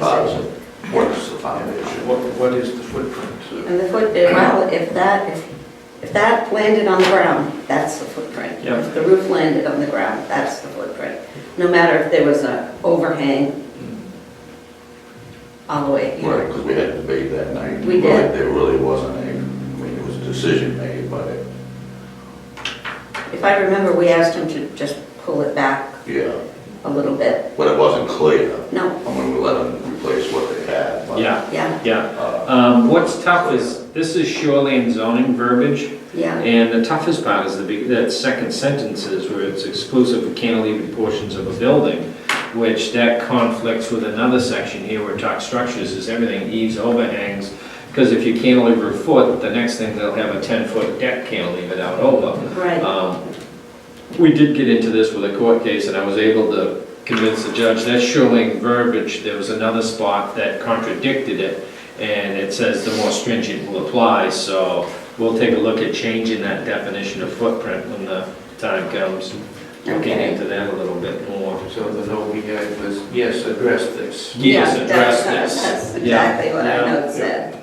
bottom works the foundation. What, what is the footprint? And the foot, eh, well, if that, if- if that landed on the ground, that's the footprint. Yeah. If the roof landed on the ground, that's the footprint. No matter if there was an overhang all the way Right, here. because we had a debate that night. We did. Really, There really wasn't a, I mean, it was a decision made, but it, If I remember, we asked him to just pull it back yeah, a little bit. but it wasn't clear. No, I mean, we let them replace what they had, but. Yeah, yeah, yeah. uh, Um, What's tough is, this is shoreline zoning verbiage, yeah, and the toughest part is the, big- that second sentence is where it's exclusive of cantilevered portions of a building, which that conflicts with another section here where it talks structures, is everything eaves, overhangs, because if you cantilever a foot, the next thing they'll have a ten-foot deck cantilevered out over. right. Um, We did get into this with a court case, and I was able to convince the judge, that's shoreline verbiage, there was another spot that contradicted it, and it says the more stringent will apply, so we'll take a look at changing that definition of footprint when the time comes. Looking Okay. into that a little bit more. So the note we had was, yes, address this. Yes, Yeah, address that's- this. That's Yeah, exactly what yeah. I note said.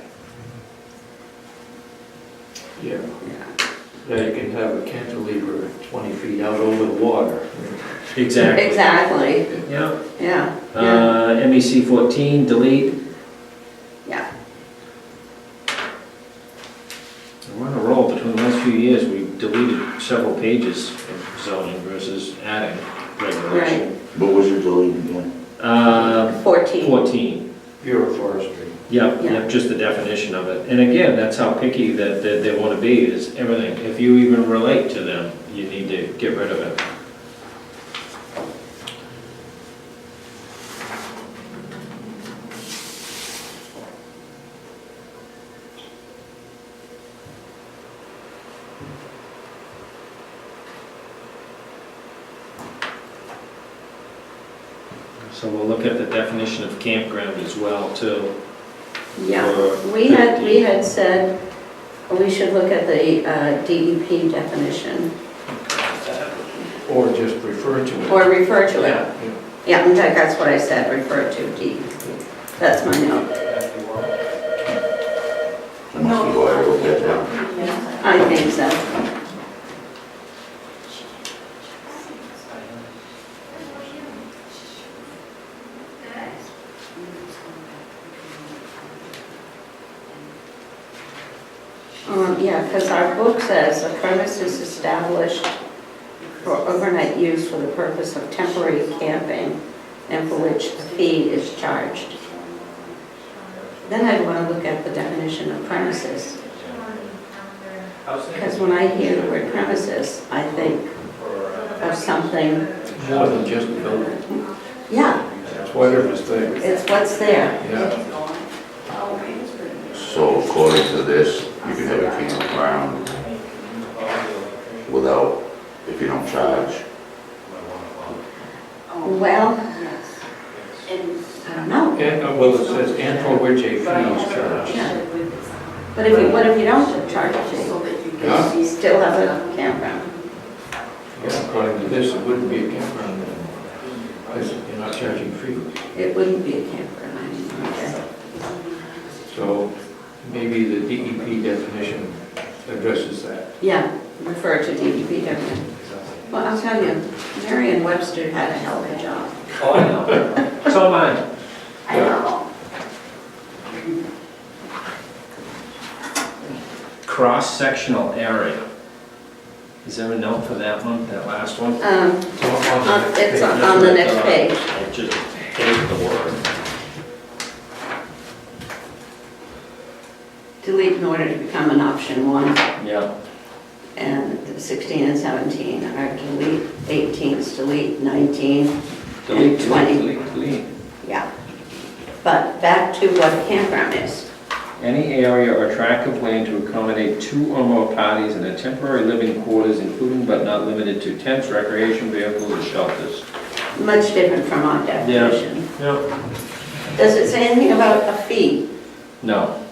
Yeah. That you can have a cantilever twenty feet out over the water. Exactly. Exactly, Yeah. yeah, yeah, Uh, MEC fourteen, delete. yeah. We're on a roll. Between the last few years, we deleted several pages of zoning versus adding regulation. What was your deleting again? Uh, 14, fourteen, Bureau of Forestry. yep, Yeah. yep, just the definition of it. And again, that's how picky that, that they wanna be, is everything. If you even relate to them, you need to get rid of it. So we'll look at the definition of campground as well, too. yeah. for We had, we 15. had said we should look at the uh, DEP definition Or just refer to it. or refer to it. Yeah, yeah. Yeah, in fact, that's what I said, refer to DEP. That's my note. Um, I must have go ahead and look at that. I think so. Um, yeah, because our book says a premise is established for overnight use for the purpose of temporary camping and for which a fee is charged. Then I'd want to look at the definition of premises. Because when I hear the word premises, I think uh, of something, More than just a building. yeah, It's whatever's there. it's what's there. Yeah. So according to this, you can have a campground without, if you don't charge. Well, I don't know, And, uh, well, it says, and for which a fee is charged. yeah. But if you, what if you don't charge a fee? Yeah. You still have a campground. Yeah, According to this, it wouldn't be a campground anymore. Because you're not charging fees. It wouldn't be a campground anymore, I guess. So maybe the DEP definition addresses that. Yeah, refer to DEP definition. Well, I'll tell you, Marion Webster had a hell of a job. Oh, I know. So mine. I know. Cross-sectional area. Is there a note for that one, that last one? Um, So on the on- uh, next it's page- on on the next page. I just hate the word. Delete in order to become an option one. Yeah. and 16 and 17 are delete, 18's delete, 19, and 20. Yeah. But back to what a campground is. Any area or tract of land to accommodate two or more parties in a temporary living quarters, including but not limited to tents, recreation vehicles, or shelters. Much different from our definition. Yeah. Does it say anything about a fee? No.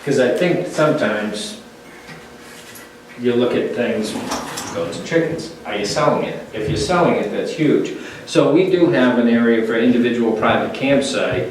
Because I think sometimes you look at things goats, and chickens. Are you selling it? If you're selling it, that's huge. So we do have an area for individual private campsite